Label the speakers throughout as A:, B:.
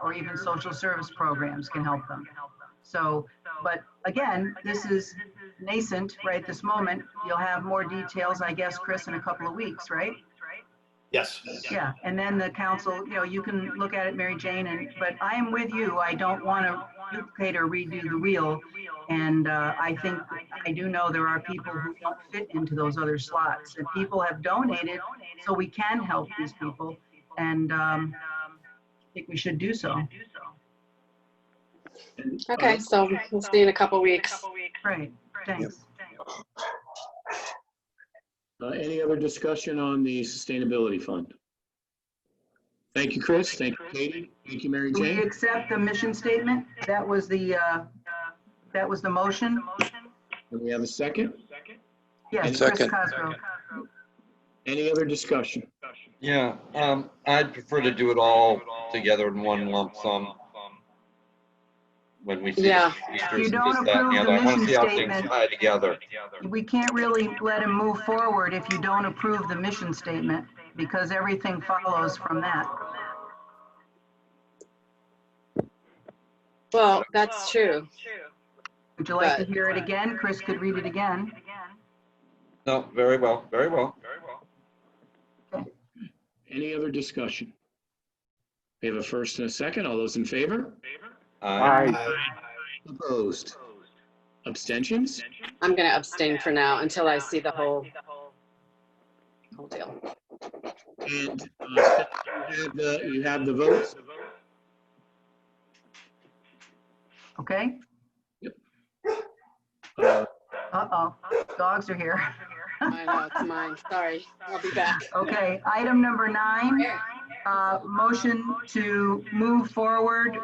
A: or even social service programs can help them. So, but again, this is nascent right this moment. You'll have more details, I guess, Chris, in a couple of weeks, right?
B: Yes.
A: Yeah, and then the council, you know, you can look at it, Mary Jane, and, but I am with you. I don't want to duplicate or redo the wheel. And uh, I think, I do know there are people who don't fit into those other slots. And people have donated, so we can help these people. And um, I think we should do so.
B: And, uh,
C: Um, Okay, so we'll see in a couple weeks.
A: Right, thanks.
B: uh, Any other discussion on the sustainability fund? Thank you, Chris. Thank you, Katie. Thank you, Mary
A: Do we
B: Jane.
A: accept the mission statement? That was the, uh, that was the motion?
B: And we have a second.
A: Yes, Chris
D: Second.
A: Cosgrove.
B: Any other discussion?
D: Yeah, um, I'd prefer to do it all together in one lump sum. When we see.
C: Yeah.
D: features
A: You
D: and
A: don't
D: this, that, and
A: approve
D: other.
A: the
D: I want to
A: mission
D: see how things
A: statement.
D: Tie together.
A: We can't really let him move forward if you don't approve the mission statement because everything follows from that.
C: Well, that's true.
A: Would you like to hear it again? Chris could read it again.
D: No, very well, very well.
B: Any other discussion? We have a first and a second. All those in favor?
D: Uh,
B: Opposed? Abstentions?
C: I'm going to abstain for now until I see the whole, whole deal.
B: And uh, you have the- you have the votes.
A: Okay?
B: Uh,
A: Uh-oh, dogs are here.
C: I know, it's mine. uh, Sorry. I'll be back.
A: Okay, item number nine, uh, motion to move forward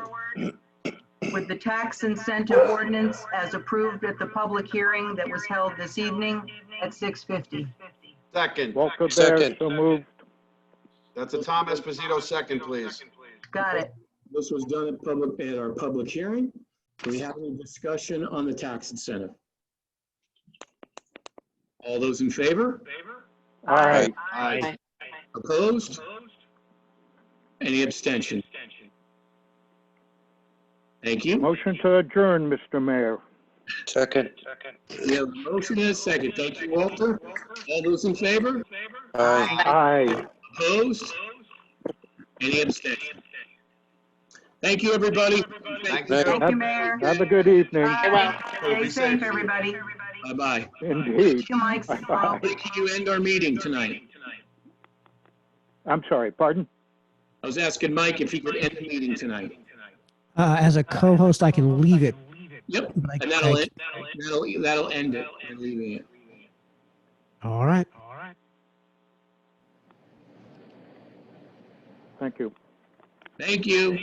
A: with the tax incentive ordinance as approved at the public hearing that was held this evening at 6:50.
E: Second.
F: Walker Bear,
D: Second.
F: so moved.
E: That's a Tom Esposito second, please.
A: Got it.
B: This was done at public, at our public hearing. Do we have any discussion on the tax incentive? All those in favor?
F: Aye.
E: Aye.
B: Opposed? Any abstention? Thank you.
F: Motion to adjourn, Mr. Mayor.
D: Second.
B: We have a motion and a second. Thank you, Walter. All those in favor? Uh,
F: Aye.
B: Opposed? Any abstention? Thank you, everybody.
E: Thank you.
D: Thank
A: Thank you, Mayor.
F: Have a good evening.
A: Bye.
E: Well,
A: Stay
E: be
A: safe,
E: safe.
A: everybody.
B: Bye-bye.
F: Indeed.
A: Thank you, Mike.
F: Bye-bye.
B: We can you end our meeting tonight?
F: I'm sorry, pardon?
B: I was asking Mike if he could end the meeting tonight.
G: Uh, as a co-host, I can leave it.
B: Yep,
G: but I-
B: and that'll
G: I-
B: end, that'll, that'll end it. We're leaving it.
G: All right.
F: Thank you.
B: Thank you.